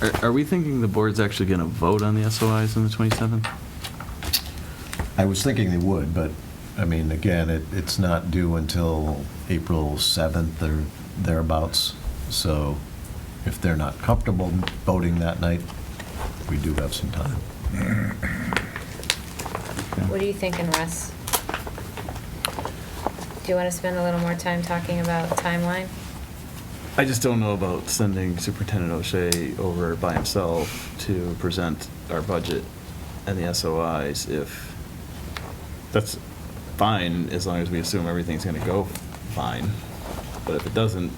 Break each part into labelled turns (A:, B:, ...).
A: Are- Are we thinking the board's actually going to vote on the SOIs on the 27th?
B: I was thinking they would, but, I mean, again, it, it's not due until April 7th or thereabouts, so if they're not comfortable voting that night, we do have some time.
C: What are you thinking, Russ? Do you want to spend a little more time talking about timeline?
A: I just don't know about sending Superintendent O'Shea over by himself to present our budget and the SOIs if, that's fine, as long as we assume everything's going to go fine. But if it doesn't,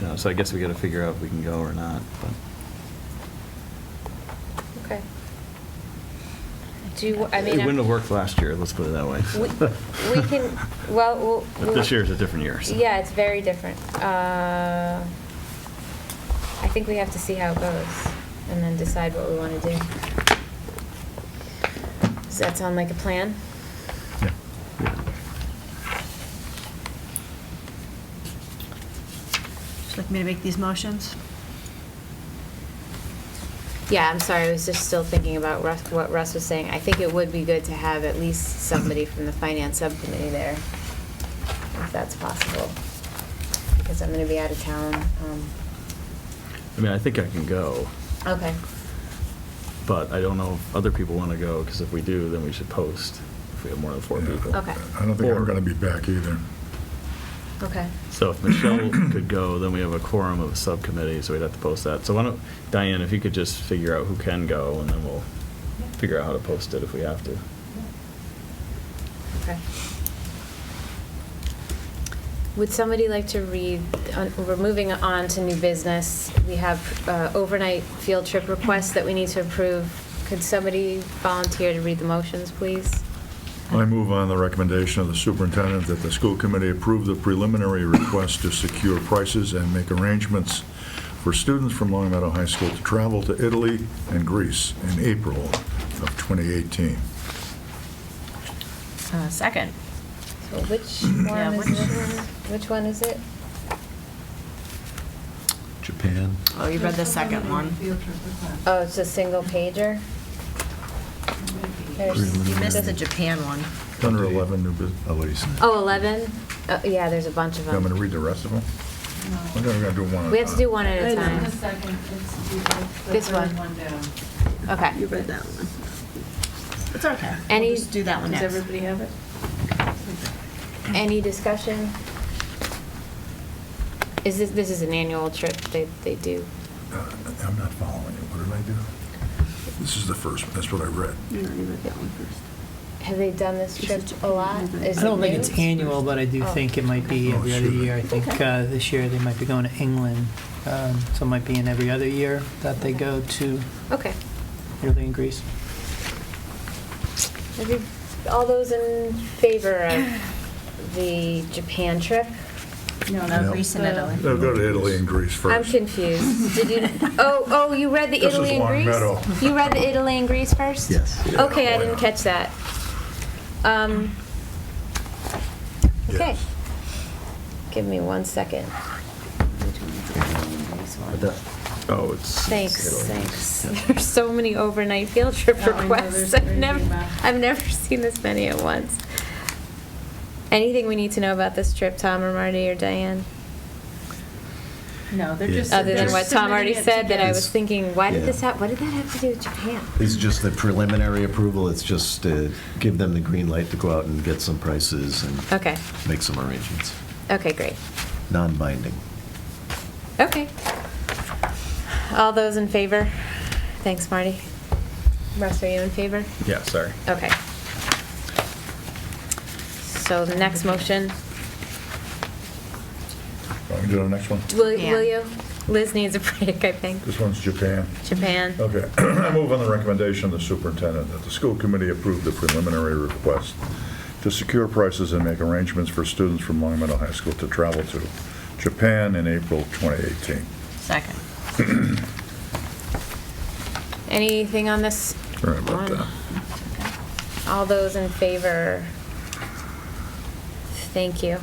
A: you know, so I guess we got to figure out if we can go or not, but.
C: Okay. Do you, I mean.
A: It wouldn't have worked last year, let's put it that way.
C: We- we can- well, we'll-
A: But this year's a different year. so.
C: Yeah, it's very different. Uh, I think we have to see how it goes and then decide what we want to do. Does that sound like a plan?
B: Yeah.
D: Would you like me to make these motions?
C: Yeah, I'm sorry, I was just still thinking about Russ, what Russ was saying. I think it would be good to have at least somebody from the finance subcommittee there, if that's possible, because I'm gonna be out of town. um,
A: I mean, I think I can go.
C: Okay,
A: But I don't know if other people want to go, because if we do, then we should post if we have more than four
E: Yeah.
A: people.
C: Okay.
E: I don't think
A: Or-
E: I'm going to be back either.
C: okay.
A: So if Michelle could go, then we have a quorum of a subcommittee, so we'd have to post that. So why don't, Diane, if you could just figure out who can go, and then we'll figure out how to post it if we have to.
C: Okay. Would somebody like to read, on- we're moving on to new business. We have uh, overnight field trip requests that we need to approve. Could somebody volunteer to read the motions, please?
E: I move on the recommendation of the superintendent that the school committee approve the preliminary request to secure prices and make arrangements for students from Long Meadow High School to travel to Italy and Greece in April of 2018.
D: Uh, second.
C: So which
D: Yeah,
C: one is
D: which
C: this? Which one is it?
B: Japan,
D: Oh, you read the second one.
C: Oh, it's a single pager? There's-
D: You missed the Japan one.
E: Under 11, new business.
B: Elise.
C: Oh, 11? Oh, Yeah, there's a bunch of
E: I'm going to
C: them.
E: read the rest of them. I'm going to do one. at a
C: We have to do
E: time.
C: one at a
F: It's
C: time.
F: the second, it's the- it's the
C: This
F: third
C: one.
F: down.
C: Okay.
D: read that one. It's okay.
C: Any-
D: We'll just do that one
F: Does
D: next.
F: everybody have it?
C: Any discussion? Is this, this is an annual trip they, they do?
E: Uh, I'm not following you. What did I do? This is the first one. That's what I read.
C: Have they done this trip a lot? Is
G: I don't think it's
C: it new?
G: annual, but I do
C: Oh.
G: think it might be
E: Oh,
G: every other
E: sure.
G: year. I think
C: Okay.
G: uh, this year they might be going to England, um, so it might be in every other year that they go to
C: Okay.
G: Italy and Greece.
C: Have you- All those in favor of the Japan trip?
D: No,
E: No.
D: no, Greece and Italy.
E: They'll go to Italy and Greece first.
C: I'm confused. Did you, oh, oh, you read the
E: This is
C: Italy and
E: Long
C: Greece?
E: Meadow.
C: You read the Italy and Greece first?
B: Yes.
E: Yeah,
C: Okay, I
E: why
C: didn't
E: not?
C: catch that. Um, okay.
E: Yes.
C: Give me one second.
A: Oh, it's.
C: Thanks, thanks. There's so many overnight field trip
F: Oh, I know,
C: requests.
F: there's
C: I've
F: crazy
C: never,
F: amount.
C: I've never seen this many at once. Anything we need to know about this trip, Tom or Marty or Diane?
F: No, they're
B: Yeah.
F: just.
C: Other than
F: they're
C: what Tom already
F: submitting it
C: said, that I
F: together.
C: was
B: It's-
C: thinking, why did
B: yeah.
C: this hap, what did that have to do with Japan?
B: This is just the preliminary approval, it's just to give them the green light to go out and get some prices and
C: Okay,
B: make some arrangements,
C: okay, great.
B: non-binding.
C: Okay. All those in favor? Thanks, Marty. Russ, are you in favor?
A: Yeah, sorry.
C: Okay. So the next motion,
E: Want me to do the next one?
C: will
D: Japan.
C: will you? Liz needs a break, I think.
E: This one's Japan.
C: Japan.
E: Okay. I move on the recommendation of the superintendent that the school committee approve the preliminary request to secure prices and make arrangements for students from Long Meadow High School to travel to Japan in April 2018.
D: Second.
C: Anything on this?
E: Sorry about
C: one?
E: that.
C: All those in favor? Thank you.